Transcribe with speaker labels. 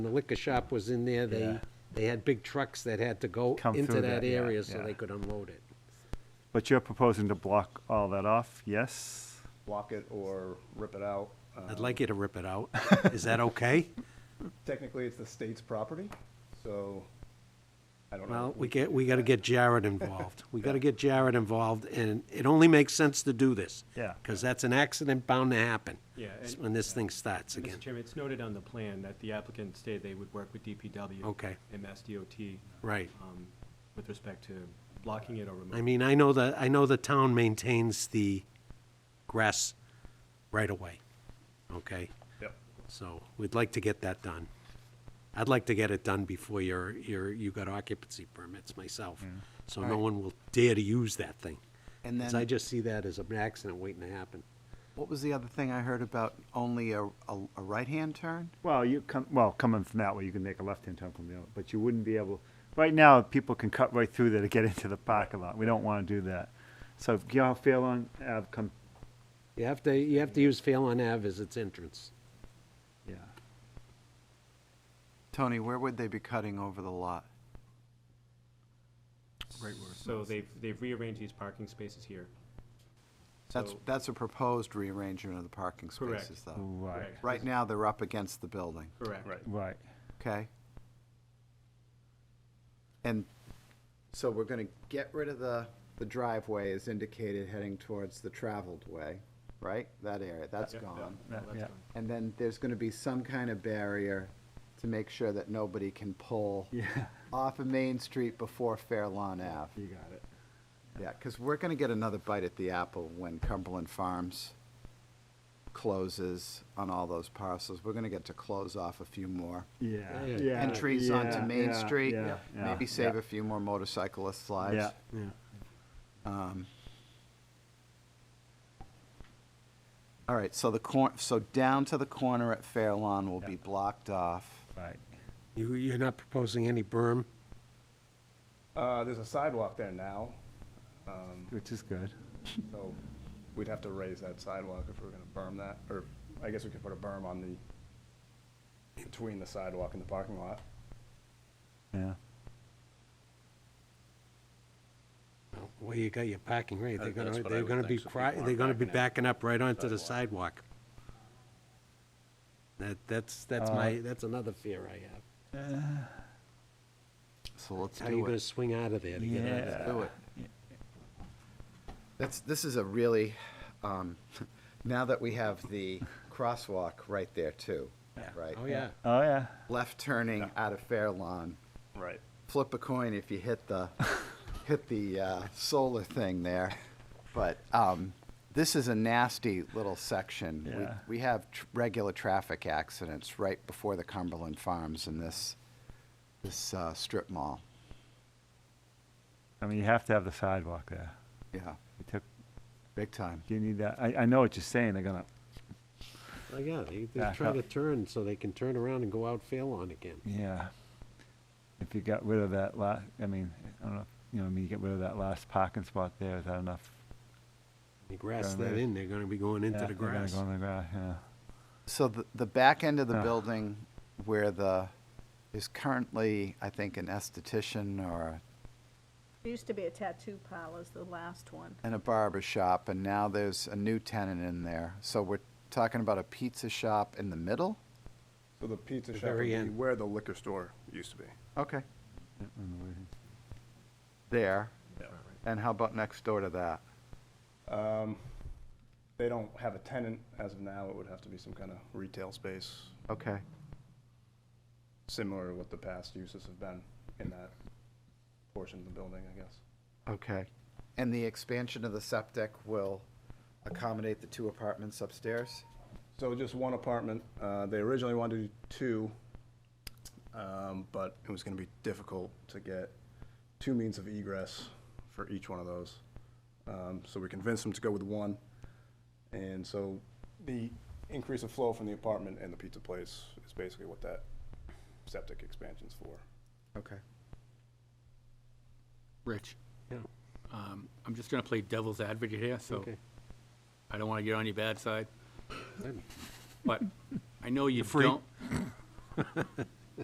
Speaker 1: The liquor shop was in there, they,
Speaker 2: Yeah.
Speaker 1: they had big trucks that had to go
Speaker 2: Come
Speaker 1: into
Speaker 2: through
Speaker 1: that
Speaker 2: that, yeah,
Speaker 1: area so they
Speaker 2: yeah.
Speaker 1: could unload it.
Speaker 2: But you're proposing to block all that off, yes?
Speaker 3: block it or rip it out. Uh,
Speaker 1: I'd like you to rip it out. Is that okay?
Speaker 3: Technically, it's the state's property, so I don't know.
Speaker 1: Well, we get, we gotta get Jared involved. We gotta get Jared involved, and it only makes sense to do this.
Speaker 2: Yeah.
Speaker 1: Because that's an accident bound to happen.
Speaker 4: Yeah, and-
Speaker 1: When this thing starts again.
Speaker 4: Mr. Chairman, it's noted on the plan that the applicant stated they would work with DPW.
Speaker 1: Okay.
Speaker 4: And Mass DOT.
Speaker 1: Right.
Speaker 4: um, With respect to blocking it or removing.
Speaker 1: I mean, I know that, I know the town maintains the grass right away, okay?
Speaker 3: Yep.
Speaker 1: So we'd like to get that done. I'd like to get it done before your, your, you got occupancy permits myself. So no
Speaker 5: Alright.
Speaker 1: one will dare to use that thing.
Speaker 5: And
Speaker 1: 'Cause I
Speaker 5: then,
Speaker 1: just see that as an accident waiting to happen.
Speaker 5: what was the other thing I heard about only a, a, a right-hand turn?
Speaker 2: Well, you come, well, coming from that way, you can make a left-hand turn from the other, but you wouldn't be able, right now, people can cut right through there to get into the parking lot. We don't want to do that. So if you all feel on, uh, come,
Speaker 1: You have to, you have to use Phelan Ave as its entrance.
Speaker 2: yeah,
Speaker 5: Tony, where would they be cutting over the lot?
Speaker 4: Right word. So they've, they've rearranged these parking spaces here.
Speaker 5: That's,
Speaker 4: So-
Speaker 5: that's a proposed rearrangement of the parking
Speaker 4: Correct.
Speaker 5: spaces, though.
Speaker 2: right,
Speaker 4: Correct.
Speaker 5: Right now, they're up against the building,
Speaker 4: Correct.
Speaker 3: Right.
Speaker 2: right.
Speaker 5: okay? And so we're gonna get rid of the, the driveway as indicated heading towards the traveled way, right? That area, that's
Speaker 4: Yep,
Speaker 5: gone.
Speaker 4: yeah,
Speaker 2: That-
Speaker 4: that's
Speaker 2: yeah.
Speaker 4: fine.
Speaker 5: And then there's gonna be some kind of barrier to make sure that nobody can pull
Speaker 2: Yeah,
Speaker 5: off of Main Street before Fair Lawn Ave.
Speaker 2: you got it.
Speaker 5: Yeah, because we're gonna get another bite at the apple when Cumberland Farms closes on all those parcels. We're gonna get to close off a few more
Speaker 2: Yeah,
Speaker 1: Yeah.
Speaker 2: yeah.
Speaker 5: entries
Speaker 2: yeah,
Speaker 5: onto Main
Speaker 2: yeah,
Speaker 5: Street.
Speaker 2: yeah, yeah,
Speaker 5: Maybe
Speaker 2: yeah.
Speaker 5: save a few more motorcyclists' lives.
Speaker 2: Yeah,
Speaker 1: Yeah.
Speaker 5: Um, All right, so the cor, so down to the corner at Fair Lawn will be blocked off.
Speaker 2: right.
Speaker 1: You, you're not proposing any berm?
Speaker 3: Uh, there's a sidewalk there now, um,
Speaker 2: Which is good.
Speaker 3: so we'd have to raise that sidewalk if we were gonna berm that, or I guess we could put a berm on the, between the sidewalk and the parking lot.
Speaker 2: Yeah.
Speaker 1: Well, Where you got your parking, right, they're
Speaker 6: That- that's
Speaker 1: gonna,
Speaker 6: what I
Speaker 1: they're
Speaker 6: would
Speaker 1: gonna be,
Speaker 6: think, so
Speaker 1: cri-
Speaker 6: people
Speaker 1: they're gonna
Speaker 6: aren't
Speaker 1: be
Speaker 6: backing
Speaker 1: backing up right onto the sidewalk. That, that's, that's
Speaker 2: Uh,
Speaker 1: my, that's another fear I have.
Speaker 5: So let's
Speaker 1: How are you
Speaker 5: do
Speaker 1: gonna
Speaker 5: it.
Speaker 1: swing out of there to get out of there?
Speaker 2: Yeah.
Speaker 5: Do it. That's, this is a really, um, now that we have the crosswalk right there too, right?
Speaker 1: Oh, yeah.
Speaker 2: Oh, yeah.
Speaker 5: Left turning out of Fair Lawn.
Speaker 3: Right.
Speaker 5: Flip a coin if you hit the, hit the, uh, solar thing there. But, um, this is a nasty little section. We-
Speaker 2: Yeah.
Speaker 5: We have tr- regular traffic accidents right before the Cumberland Farms in this, this, uh, strip mall.
Speaker 2: I mean, you have to have the sidewalk there.
Speaker 5: Yeah,
Speaker 2: You took,
Speaker 5: big time.
Speaker 2: you need that, I, I know what you're saying, they're gonna,
Speaker 1: Oh, yeah, they, they
Speaker 2: Back
Speaker 1: try
Speaker 2: up.
Speaker 1: to turn so they can turn around and go out fail on again.
Speaker 2: Yeah. If you got rid of that last, I mean, I don't know, you know, I mean, you get rid of that last parking spot there, is that enough?
Speaker 1: You grass
Speaker 2: Going
Speaker 1: that
Speaker 2: right-
Speaker 1: in, they're gonna be going into
Speaker 2: Yeah,
Speaker 1: the
Speaker 2: they're gonna
Speaker 1: grass.
Speaker 2: Go in the grass, yeah.
Speaker 5: So the, the back end of the
Speaker 2: Ah.
Speaker 5: building where the, is currently, I think, an esthetician or
Speaker 7: There used to be a tattoo parlor's the last one.
Speaker 5: and a barber shop, and now there's a new tenant in there. So we're talking about a pizza shop in the middle?
Speaker 3: So the pizza
Speaker 1: The
Speaker 3: shop would
Speaker 1: very
Speaker 3: be
Speaker 1: end.
Speaker 3: where the liquor store used to be.
Speaker 5: Okay.
Speaker 2: Yeah, on the way.
Speaker 5: There. And how about next door to that?
Speaker 3: They don't have a tenant as of now, it would have to be some kind of retail space,
Speaker 5: Okay.
Speaker 3: similar to what the past uses have been in that portion of the building, I guess.
Speaker 5: Okay. And the expansion of the septic will accommodate the two apartments upstairs?
Speaker 3: So just one apartment. Uh, They originally wanted to do two, um, but it was going to be difficult to get two means of egress for each one of those. Um, So we convinced them to go with one. And so the increase of flow from the apartment and the pizza place is basically what that septic expansion's for.
Speaker 5: Okay.
Speaker 8: Rich,
Speaker 1: Yeah,
Speaker 8: um, I'm just gonna play devil's advocate here, so
Speaker 1: okay.
Speaker 8: I don't wanna get on your bad side,
Speaker 1: Good.
Speaker 8: but I know you
Speaker 1: free.
Speaker 8: don't.